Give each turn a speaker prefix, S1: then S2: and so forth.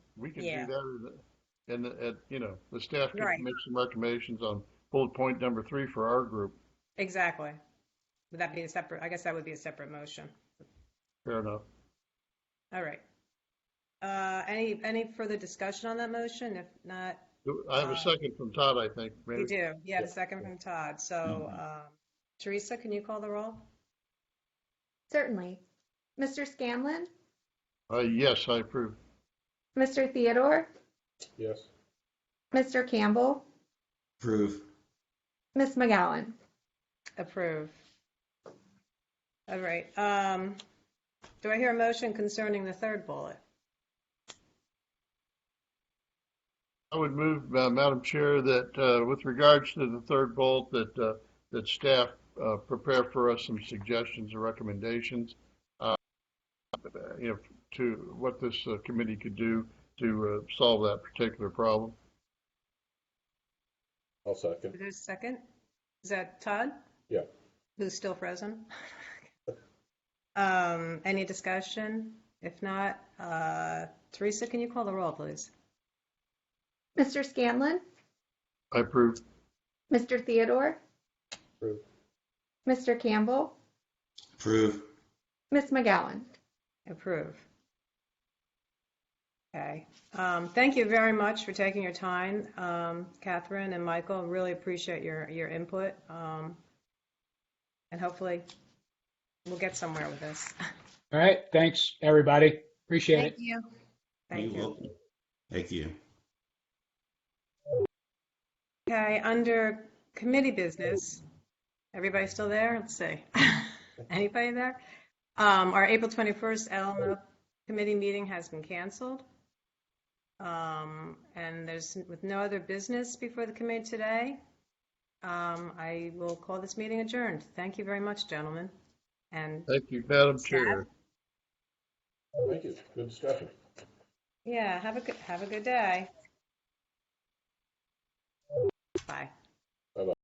S1: we can
S2: Yeah.
S1: do that in the, in the, at, you know, the staff
S2: Right.
S1: can make some recommendations on bullet point number three for our group.
S2: Exactly. Would that be a separate, I guess that would be a separate motion.
S1: Fair enough.
S2: All right. Uh, any, any further discussion on that motion? If not,
S1: Do- I have
S2: Uh,
S1: a second from Todd, I think.
S2: we
S1: Maybe
S2: do. You have a
S1: Yeah.
S2: second from Todd. So,
S3: Mhm.
S2: um, Teresa, can you call the roll?
S4: Certainly. Mr. Scanlon,
S1: Uh, yes, I approve.
S4: Mr. Theodore,
S5: yes,
S4: Mr. Campbell,
S3: approve,
S4: Ms. McGowan.
S2: Approve. All right. Um, do I hear a motion concerning the third bullet?
S1: I would move, uh, Madam Chair, that, uh, with regards to the third bullet, that, uh, that staff, uh, prepare for us some suggestions or recommendations, uh, you know, to what this uh, committee could do to, uh, solve that particular problem.
S5: I'll second,
S2: Is there a second? Is that Todd?
S5: yeah.
S2: Who's still frozen? Um, any discussion? If not, uh, Teresa, can you call the roll, please?
S4: Mr. Scanlon,
S1: I approve.
S4: Mr. Theodore,
S5: Approve.
S4: Mr. Campbell,
S3: approve,
S4: Ms. McGowan.
S2: Approve. Okay. Um, Thank you very much for taking your time, um, Catherine and Michael. Really appreciate your, your input. um, And hopefully, we'll get somewhere with this.
S6: All right, thanks, everybody. Appreciate it.
S4: Thank you.
S2: Thank you.
S3: welcome. Thank you.
S2: Okay, under committee business, everybody still there? Let's see. Anybody there? Um, our April 21st LMO committee meeting has been canceled. Um, and there's, with no other business before the committee today, um, I will call this meeting adjourned. Thank you very much, gentlemen. And,
S1: Thank you, Madam Chair.
S5: Thank you, good discussion.
S2: yeah, have a good, have a good day. Bye.